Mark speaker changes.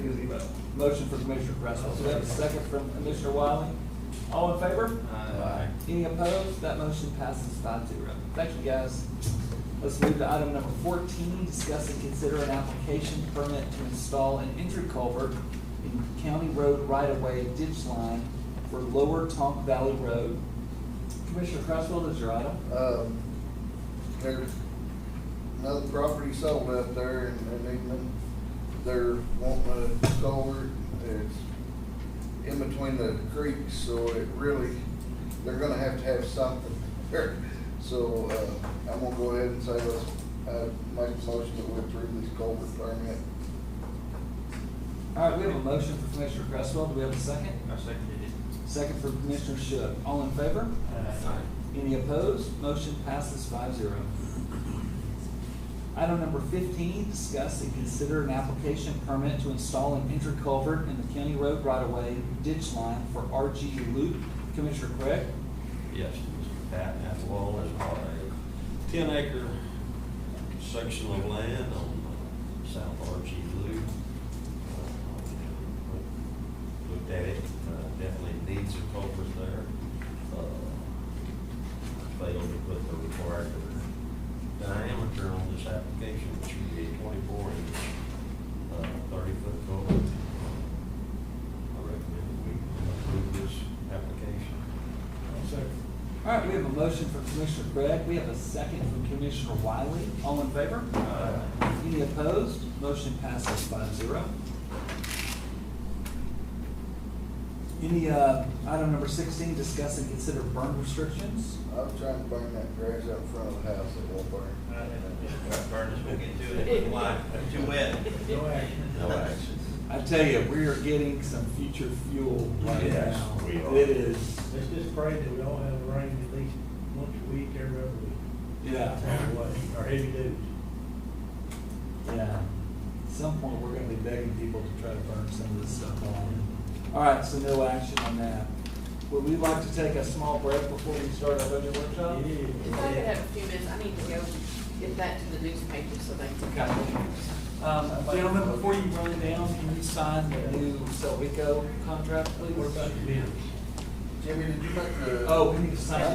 Speaker 1: Motion for Commissioner Russell. So we have a second from Commissioner Wiley. All in favor?
Speaker 2: Aye.
Speaker 1: Any opposed? That motion passes five zero. Thank you, guys. Let's move to item number fourteen, discuss and consider an application permit to install an entry culvert in County Road right-of-way ditch line for Lower Tonk Valley Road. Commissioner Cresswell, is your item?
Speaker 3: Um, there's another property sold out there in, in England. They're wanting a culvert. It's in between the creeks, so it really, they're gonna have to have something there. So, uh, I'm gonna go ahead and say let's, uh, make a motion that we approve this culvert permit.
Speaker 1: All right, we have a motion for Commissioner Cresswell. Do we have a second?
Speaker 2: I seconded it.
Speaker 1: Second for Commissioner Shook. All in favor?
Speaker 2: Aye.
Speaker 1: Any opposed? Motion passes five zero. Item number fifteen, discuss and consider an application permit to install an interculvert in the county road right-of-way ditch line for RG Loop. Commissioner Craig?
Speaker 4: Yes, Mr. Pat Atwell has bought a ten acre section of land on uh, South Archie Loop. Uh, Looked at it, uh, definitely needs a culvert there. Uh, Failed to put the required diameter on this application, which would be a twenty-four inch, uh, thirty-foot culvert. I recommend we approve this application.
Speaker 1: All right, we have a motion from Commissioner Craig. We have a second from Commissioner Wiley. All in favor? Any opposed? Motion passes five zero. Any, uh, item number sixteen, discuss and consider burn restrictions.
Speaker 3: I'm trying to burn that grass out in front of the house. It won't burn.
Speaker 1: Uh,
Speaker 4: Burn
Speaker 2: We'll get to it. Why? Too wet.
Speaker 5: No action.
Speaker 4: No action.
Speaker 1: I tell you, we are getting some future fuel right
Speaker 4: Yes,
Speaker 1: now.
Speaker 4: we are.
Speaker 1: It is,
Speaker 5: Let's just pray that we all have rain at least once a week, every other week.
Speaker 1: yeah,
Speaker 5: That's the way, our heavy dudes.
Speaker 1: yeah. At some point, we're gonna be begging people to try to burn some of this stuff off. All right, so no action on that. Would we like to take a small break before we start our budget workshop?
Speaker 6: If I could have a few minutes, I need to go get that to the newspaper so they can.
Speaker 1: Okay. Um, gentlemen, before you run down, can you sign the new Selvico contract, please?
Speaker 5: What about the bids?
Speaker 3: Jimmy, did you make the?
Speaker 1: Oh, we need to sign